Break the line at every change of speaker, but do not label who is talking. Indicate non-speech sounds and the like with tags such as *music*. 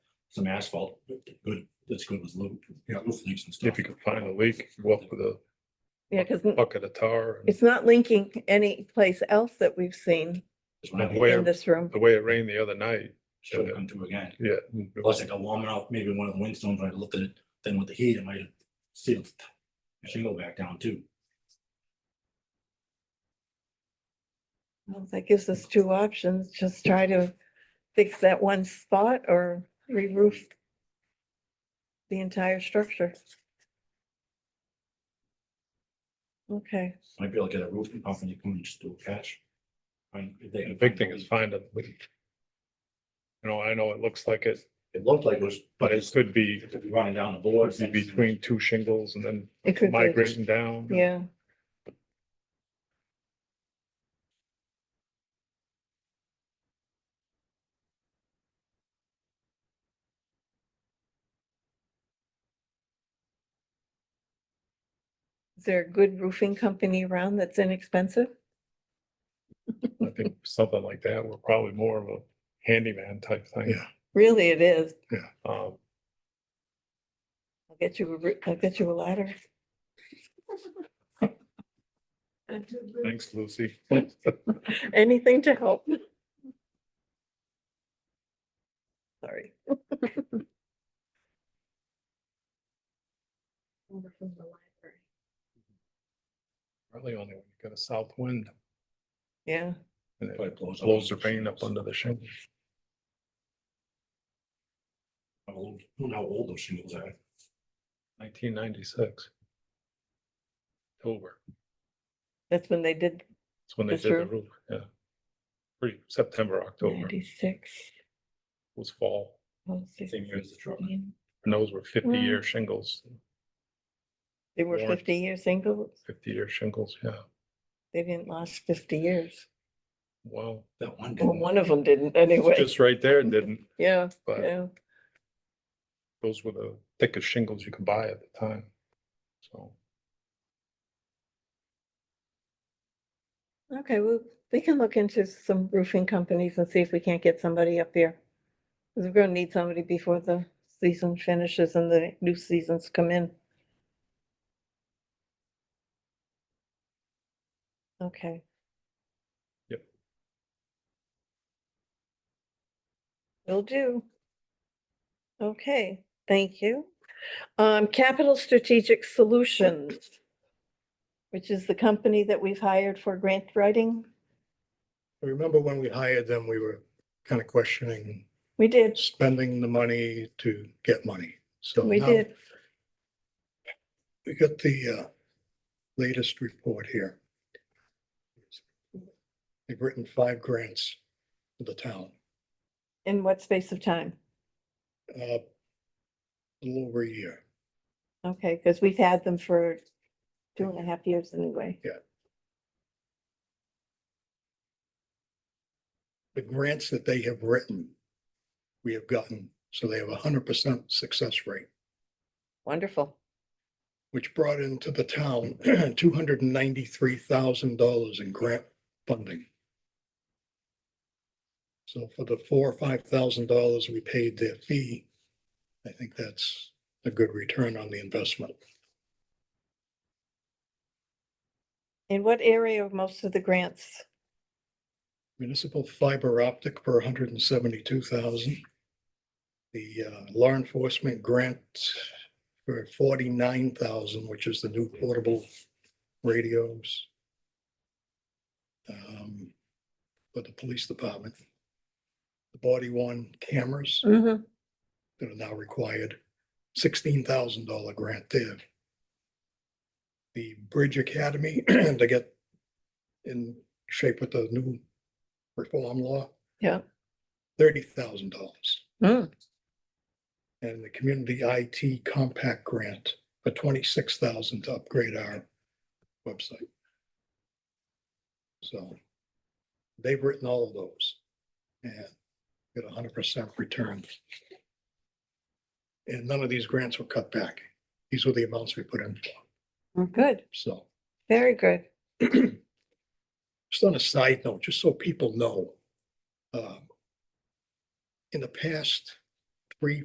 some asphalt, good, that's good with loop.
Yeah.
Roof leaks and stuff.
If you could find a leak, you go up with a
Yeah, because
bucket of tar. and
it's not linking any place else that we've seen
That's what I
the
think
way
in
it-
this room.
The way it rained the other night,
Should have come to again.
yeah.
Plus I got warm enough, maybe one of the windstones, when I looked at it, then with the heat, it might have sealed the shingle back down too.
Well, That gives us two options, just try to fix that one spot or re-roof the entire structure. Okay,
Might be able to get a roofing pump and you can just do a patch. Find- if they
The
can
big
find
thing
a
is
leak.
finding a leak. You know, I know it looks like it,
It looked like it was,
but
but
it
it's
could be
running down the boards. and-
between two shingles and then
it could be,
migrating down.
yeah. Is there a good roofing company around that's inexpensive?
I think something like that, we're probably more of a handyman type thing.
Yeah.
Really, it is.
Um,
I'll get you a, ri- I'll get you a ladder.
thanks, Lucy.
Anything to help. Sorry.
Really only when you got a south wind
Yeah,
and it
Probably blows up.
blows the rain up under the shingles.
I don't know how old those shingles are.
Nineteen ninety-six. October.
that's when they did
That's when they
This
did the
roof?
roof, yeah. Pretty September, October
Mm. ninety-six.
was fall.
oh, six,
Same year as the truck.
fifteen.
And those were fifty-year
Wow.
shingles,
They were
Warren.
fifty years single.
fifty-year shingles, yeah.
They didn't last fifty years.
Well,
That one.
Well,
didn't-
one of them didn't anyway.
just right there didn't,
Yeah,
but
yeah.
those were the thickest shingles you could buy at the time. So
Okay, well, we can look into some roofing companies and see if we can't get somebody up here. Because we're gonna need somebody before the season finishes and the new seasons come in. Okay.
Yep.
Will do. Okay, thank you. Um, Capital Strategic Solutions which is the company that we've hired for grant writing.
I Remember when we hired them, we were kind of questioning
We did,
spending the money to get money. So
we
now
did.
We got the uh, latest report here. They've written five grants for the town,
In what space of time?
uh, a little over a year.
Okay, because we've had them for two and a half years anyway.
The grants that they have written, we have gotten, so they have a hundred percent success rate.
Wonderful.
which brought into the town *clears throat* two hundred and ninety-three thousand dollars in grant funding. So for the four or five thousand dollars we paid their fee, I think that's a good return on the investment.
In what area are most of the grants?
Municipal fiber optic for $172,000. The uh, law enforcement grant for forty-nine thousand, which is the new portable radios. um, For the police department. The body one cameras
Mm-hmm.
that are now required, sixteen thousand dollar grant there. The Bridge Academy *clears throat* to get in shape with the new reform law.
Yeah.
Thirty thousand dollars
Mm,
and the Community IT Compact Grant for twenty-six thousand to upgrade our website. So they've written all of those and get a hundred percent return. And none of these grants were cut back. These were the amounts we put in, for.
Good,
so. *clears throat*
very good.
Just on a side note, just so people know. um, In the past